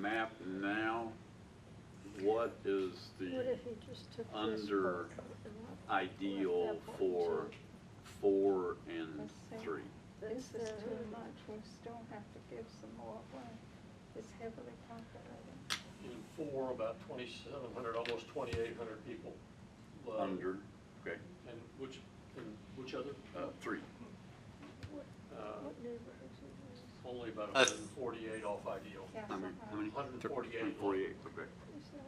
map now, what is the he just took under ideal for four and three? This is too much, we still have to give some more away. It's heavily populated. in four, about twenty-seven hundred, almost twenty-eight hundred people. live. Under, okay, And which, and which other? uh, three. Uh, What neighborhoods are these? Only about hundred and forty-eight off ideal. How many, Castle how many? House. Hundred and Thir- forty-eight. 148, okay. Who's that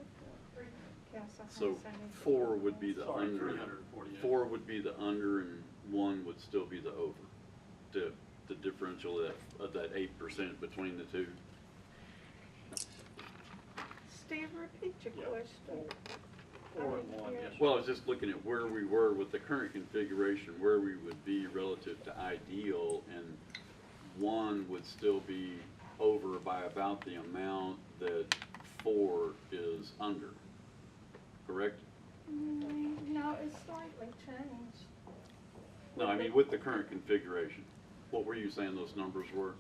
for? Castle House. So I need to four look would be at the Sorry, under. three hundred and forty-eight. Four would be the under and one would still be the over. The, the differential of, of that eight percent between the two. that. Steve, repeat your Yeah. question. Four and one, yes. Well, I was just looking at where we were with the current configuration, where we would be relative to ideal, and one would still be over by about the amount that four is under, correct? Mm, No, it's slightly changed. No, I mean, with the current configuration, what were you saying those numbers were?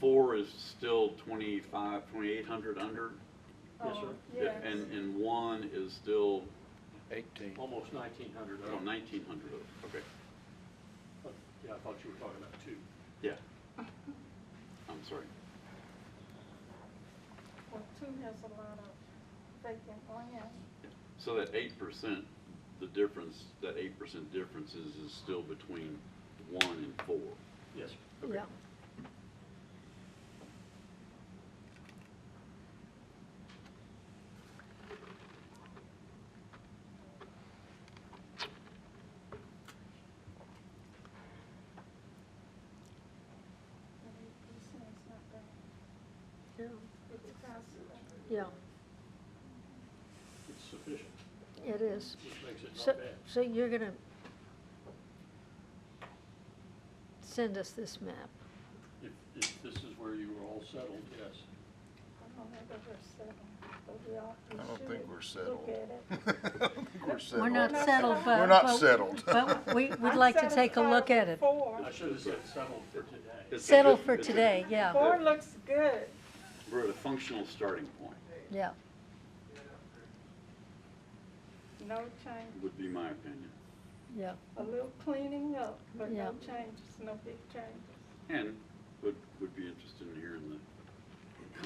Four is still twenty-five, twenty-eight hundred under? Yes, Oh, sir. Yes. And, and one is still, Eighteen. Almost nineteen hundred. Uh, oh, nineteen hundred, okay, Yeah, I thought you were talking about two. yeah. I'm sorry. Well, two has a lot of vacant land. So that eight percent, the difference, that eight percent difference is, is still between one and four. Yes, sir. Yeah, And it- it's it's not bad. yeah, It's possible. yeah, it's sufficient, it is. which makes it So, not bad. so you're gonna send us this map. If, if this is where you were all settled, I yes. don't know whether we're settled, but we all- we I don't think should we're Look settled. at it. I don't think We're We're not settled. settled, but. We're not but- settled. But we, we'd I'm like to take a look satisfied at it. with Four. I should have said settled for today. It's a Settle good- for it's a- today, yeah, Four looks good. We're at a functional starting point, yeah. No change, would be my opinion. Yeah, a little cleaning up, but Yeah. no changes, no big changes. And would, would be interested in hearing the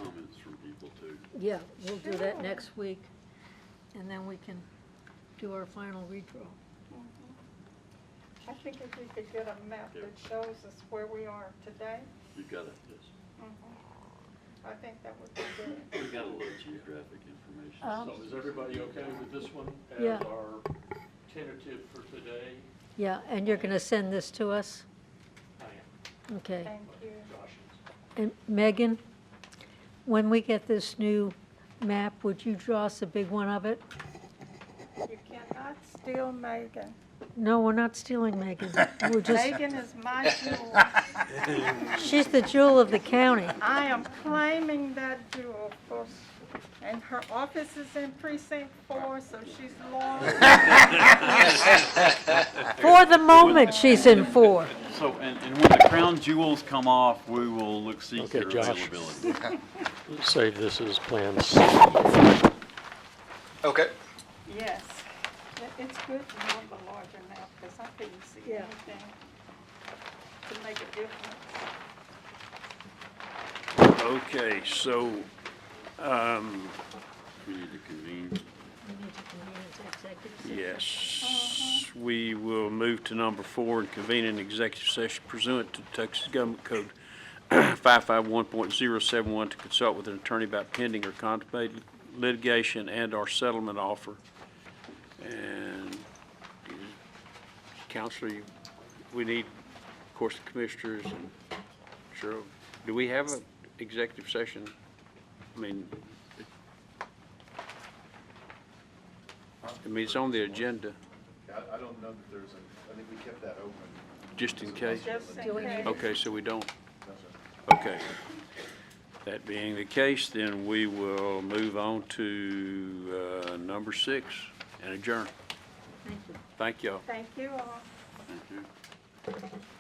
comments from people too. yeah, we'll do that Sure. next week, and then we can do our final redraw. Mm-hmm. I think if we could get a map that shows us where we are today, mm-hmm, You gotta, I think that would be good. you gotta love geographic information. Um, So is everybody okay with this one Yeah. as our tentative for today? Yeah, and you're gonna send this to us? I am. Okay. Thank you. Josh And Megan, when we get this new map, would you draw us a big one of it? You cannot steal Megan. No, we're not stealing Megan. We're just, Megan is my jewel. she's the jewel of the county. I am claiming that jewel for, and her office is in precinct four, so she's loyal. For the moment, she's in four. So, and, and when the crown jewels come off, we will look, seek Okay, their Josh. availability. Save this as plan C. Okay. Yes. It- It's good to have the larger map, because I couldn't see Yeah. anything to make a difference. Okay, so, um, We need to convene. yes, we will move to number four and convene an executive session pursuant to Texas Government Code 551.071 to consult with an attorney about pending or contemplated litigation and/or settlement offer. And counselor, you- we need, of course, the commissioners and Cheryl. Do we have an executive session? I mean, I mean, it's on the agenda, I, I don't know that there's a, I think we kept that open. just in case. Just in Doing case. it. Okay, so we don't, okay. That being the case, then we will move on to uh, number six and adjourn. Thank you. Thank y'all. Thank you all. Thank you.